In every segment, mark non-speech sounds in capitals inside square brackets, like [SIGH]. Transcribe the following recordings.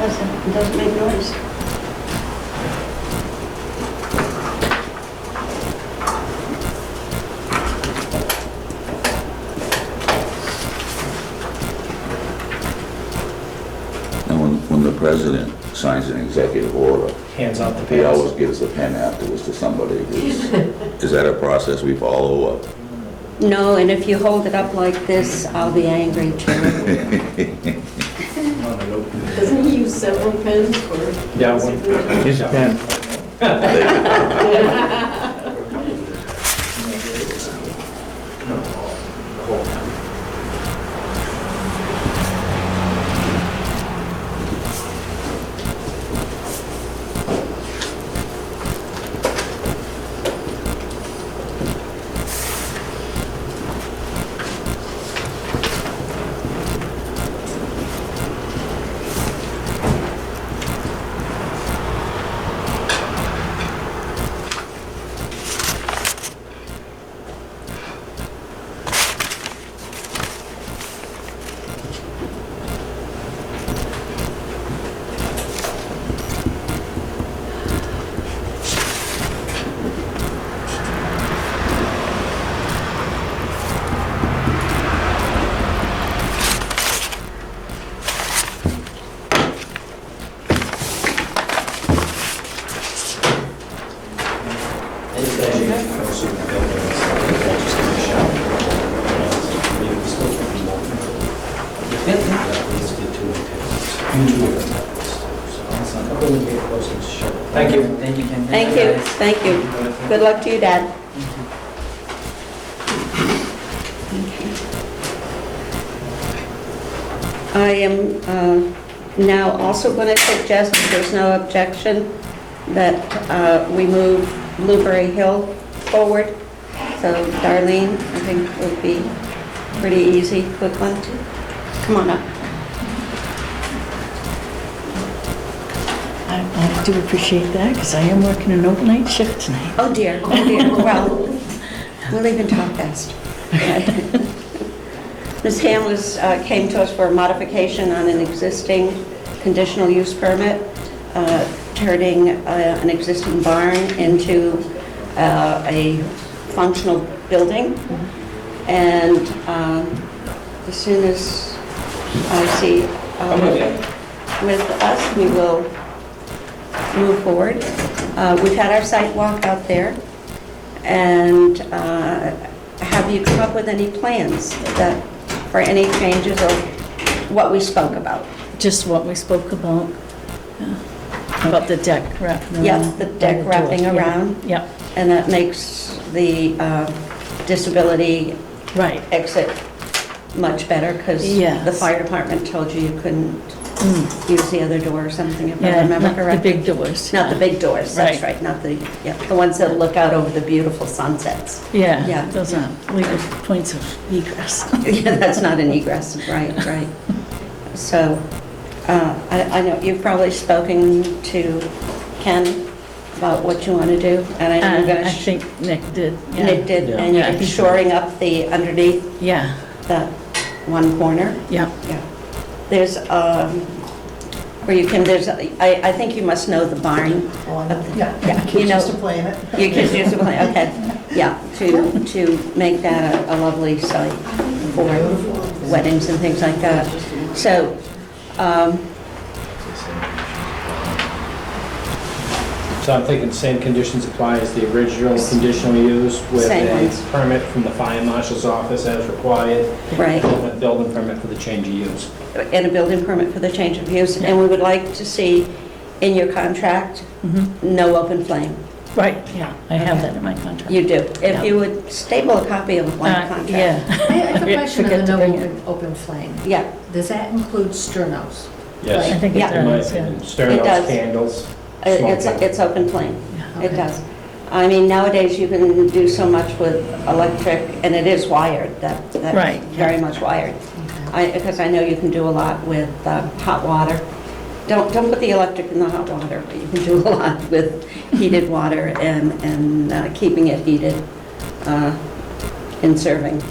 Doesn't, it doesn't make noise. And when, when the president signs an executive order, Hands off the he always pass. gives the pen afterwards to somebody. Is is that a process we follow up? No, and if you hold it up like this, I'll be angry too. Doesn't he use several pens for? Yeah, one. His pen. Thank you. Thank you, Ken. Thank you, thank you. Good luck to you, Dad. I am uh, now also going to suggest, if there's no objection, that uh, we move Blueberry Hill forward. So Darlene, I think would be pretty easy, quick one. Come on up. I I do appreciate that, because I am working an overnight shift tonight. Oh dear, oh dear, well, we'll even talk fast. [LAUGHS] Ms. Hamlis uh, came to us for a modification on an existing conditional use permit, uh, turning uh, an existing barn into uh, a functional building. And um, as soon as I see I'm with you. uh, with us, we will move forward. Uh, We've had our site walk out there, and uh, have you come up with any plans that, for any changes of what we spoke about? Just what we spoke about, yeah, about the deck wrapping around. Yeah, the deck door. wrapping Yeah, around. Yeah, And that makes the uh, disability right. exit much better, because the Yes. fire department told you you couldn't Mm, use the other door or something, if I Yeah, remember not the correctly. big doors. Not the big doors, that's Right. right, not the, yeah, the ones that look out over the beautiful sunsets. yeah. Yeah, those are legal points of [LAUGHS] egress. [LAUGHS] Yeah, that's not an egress, right, right. So, uh, I I know you've probably spoken to Ken about what you want to do, and I know you're And I going think Nick did, to, Nick Uh, yeah. did, and Yeah, I you're think so. shoring up the underneath Yeah, that one corner. yeah. Yeah. There's, um, where you can, there's, I I think you must know the barn. Yeah, Yeah, you kids know- used to play in it. Your kids use it, okay, yeah, to to make that a- a lovely site for weddings and things like that. So, um, So I'm thinking same conditions apply as the original conditional use with Same ones. a permit from the fire marshal's office as required. Right. and a Building permit for the change of use. and a building permit for the change of use, and we would like to see in your contract, mhm. no open flame. Right, yeah, I have Okay. that in my contract. You do. Yeah. If you would staple a copy of one Uh, contract. Yeah. [LAUGHS] I have a Yeah, question on forget the no to bring open, open flame. Yeah, Does that include sternos? I Yes. think it Yeah. In my does, yeah. opinion, Stern It does. out candles. it- uh, it's, smoke. it's open flame, Yeah, it okay. does. I mean, nowadays, you can do so much with electric, and it is wired, that, that's Right, yeah. very much wired. I, because I know you can do a lot with uh, hot water. Don't, don't put the electric in the hot water, but you can do a lot [LAUGHS] with heated water and, and uh, keeping it heated uh, in serving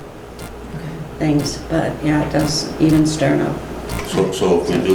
things. But yeah, it does even stir up. So, so if we do